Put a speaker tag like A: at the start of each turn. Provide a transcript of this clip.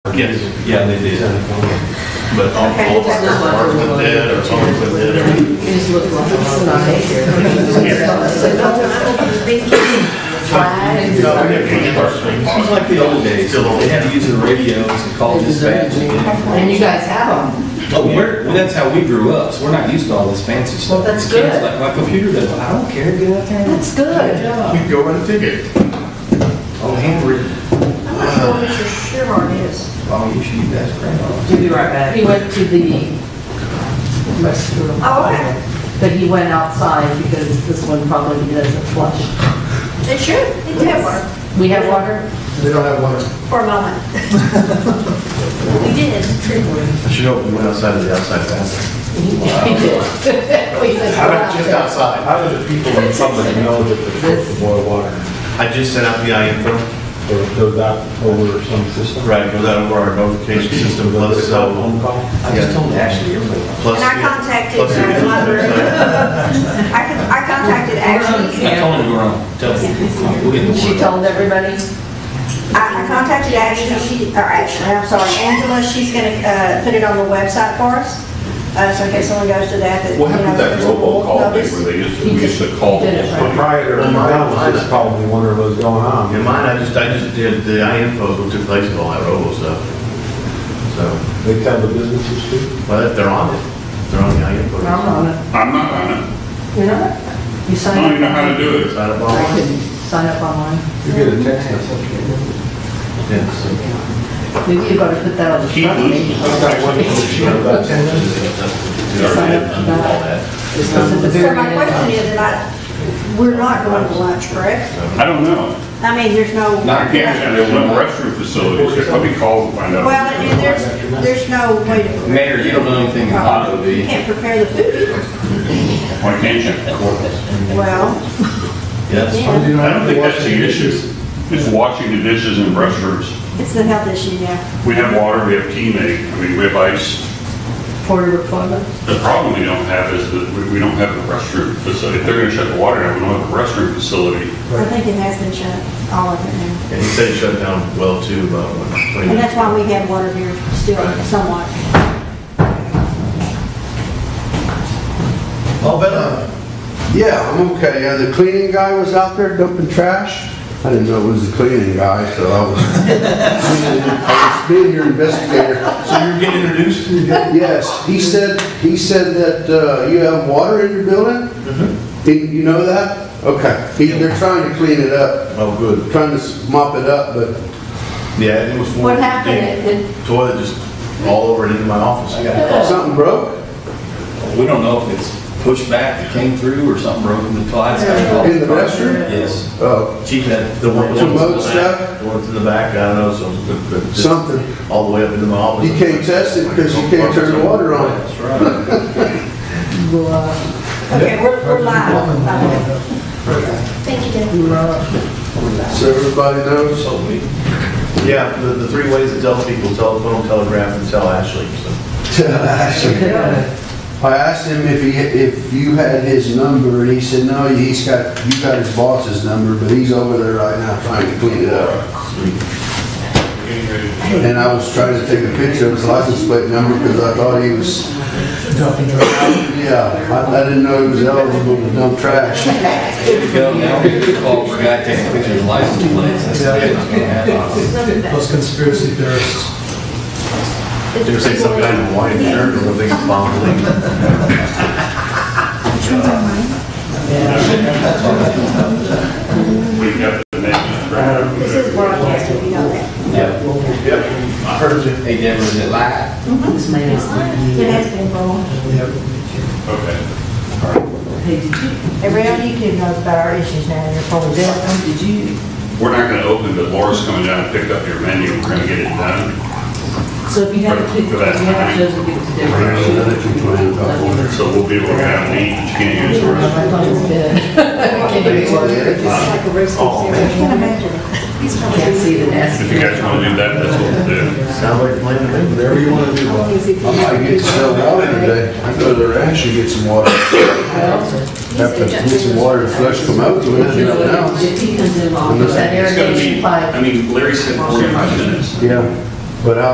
A: Yes,
B: Yeah, they did.
A: but all all of our cars went dead, our phones went dead, everything.
B: It was like the old days, they had to use the radios and call dispatch. and get-
C: And you guys have them.
B: Oh, we're, well, that's how we grew up, so we're not used to all this fancy stuff.
C: Well, that's
B: Kids
C: good.
B: Like my computer does, I don't care, get out there.
C: That's good.
A: We could go run a ticket.
B: Oh, handwritten,
D: I'm not sure what your Chevron is.
B: oh, you should use that
C: We'll be right back. He went to the restroom.
D: Oh, okay.
C: But he went outside because this one probably doesn't flush.
D: It should, it did work
C: We have water?
E: They don't have water.
D: for a moment. We did.
F: I should hope you went outside of the outside fence.
C: He did. We said,
F: How about just outside?
E: How do the people in public know that the filter boil water,
F: I just sent out the IM form.
E: or goes out over some system?
F: Right, it goes out over our notification system, plus
E: It's a
F: cell phone,
E: phone call?
B: I just told Ashley, everybody.
F: plus.
D: And I contacted
F: plus
D: our
F: the-
D: library. I con- I contacted Ashley,
B: I told him to go around, tell him, we'll get the
C: She
B: word. out.
C: told everybody?
D: I I contacted Ashley, she, or Ashley, I'm sorry, Angela, she's gonna uh, put it on the website for us. Uh, So in case someone goes to that, that.
G: What happened to that
D: you know,
G: robocall thing
D: there's a
G: where they used to,
C: He
G: we used
C: did-
G: to call?
C: he did it, right.
E: Proprietor of the house is probably wondering what's going on.
F: In mine, I just, I just did the IM post, which took place of all that robo stuff. So,
E: They tell the businesses to.
F: but they're on it, they're on the IM post.
C: I'm on it.
G: I'm not on it.
C: You're not? You
G: I
C: sign
G: don't
C: up?
G: even know how to do it.
F: Sign up
C: I
F: on it.
C: can sign up online.
E: You get a text message.
F: Yeah, so-
C: Maybe you better put that on the
G: Keep
C: front page.
G: losing.
E: I've got one issue about ten minutes ago.
C: Sign up for
F: All
C: that.
F: that.
C: It's not at the
D: So
C: very
D: my
C: end.
D: question is, and I, we're not going to lunch, correct?
G: I don't know.
D: I mean, there's no.
G: I can't, there's no restroom facilities, here. let me call and find out.
D: Well, and there's, there's no way to.
B: Mayor, you don't know anything about it, do you?
D: You can't prepare the food either.
G: Why can't you?
D: Well,
F: Yes.
D: yeah,
G: I don't think that's the issue. It's washing the dishes in restrooms.
D: it's the health issue, yeah.
G: We have water, we have teammate, I mean, we have ice.
C: Porter appointment.
G: The problem we don't have is that we- we don't have a restroom facility. If they're gonna shut the water down, we don't have a restroom facility.
D: I think it has been shut, all of it now.
F: And he said he shut down well too, about what, 20
D: And that's
F: minutes.
D: why we have water here still somewhat.
F: Oh, better.
H: Yeah, I'm okay. Yeah, the cleaning guy was out there dumping trash. I didn't know it was the cleaning guy, so I was, I was being your investigator.
F: So you're getting introduced?
H: Yes, he said, he said that uh, you have water in your building?
F: Mm-hmm.
H: Did you know that? Okay. He- They're trying to clean it up,
F: Oh, good.
H: trying to mop it up, but
F: Yeah, it was. full
D: What
F: of
D: happened?
F: damn
D: It-
F: Toilet just all over and into my office.
B: I got a call.
H: something broke
B: We don't know if it's pushed back, it came through, or something broke in the twice. I got a
H: in the
B: call.
H: restroom?
B: Yes.
H: Oh,
F: Chief had the one.
H: Some
F: the
H: mold
F: ones in the back- The ones in the back, I don't know, so. but- but just
H: something.
F: All the way up into my office.
H: You can't test it 'cause you can't turn the water on.
F: That's right.
D: Okay, we're, we're live. by the way. Thank you, Deb.
H: So everybody knows.
F: So we- Yeah, the, the three ways to tell people, telephone, telegraph, and tell Ashley, so.
H: I asked him if he, if you had his number, and he said, no, he's got, you got his boss's number, but he's over there right now trying to clean it up. And I was trying to take a picture of his license plate number because I thought he was. Yeah, I, I didn't know he was eligible to dump trash.
B: Here we go, now we get a call for a guy taking pictures of license plates. That's the way it's gonna happen.
E: Those conspiracy theorists.
F: They're saying some guy in a white shirt, or something, it's bombing.
G: We got the name, right?
D: This is broadcasting, you know that.
F: I heard you.
B: Hey Deborah, is it live?
C: This man is
D: It has been going.
G: Okay.
C: Hey, did you,
D: Every other YouTube knows about our issues now, they're probably.
C: Dale, did you,
G: We're not gonna open, but Laura's coming down and pick up your menu, we're gonna get it done.
C: so if you have to, if you have to, just give it to Deborah. She-
G: So we'll be able to have an eat, but you can't use the restroom.
C: My phone's dead.
D: It's like a race. I can't imagine.
C: Can't see the nasty.
G: If you guys wanna do that, that's what we'll do.
F: Sound like playing the game.
H: Whatever you want to do, bud. I might get some water today. I go to the ranch and get some water. Have to get some water to flush them out, do it, you know, now.
C: If he comes in long, that
G: It's gonna be,
C: irrigation pipe.
G: I mean, Larry said 45 minutes.
H: Yeah, but I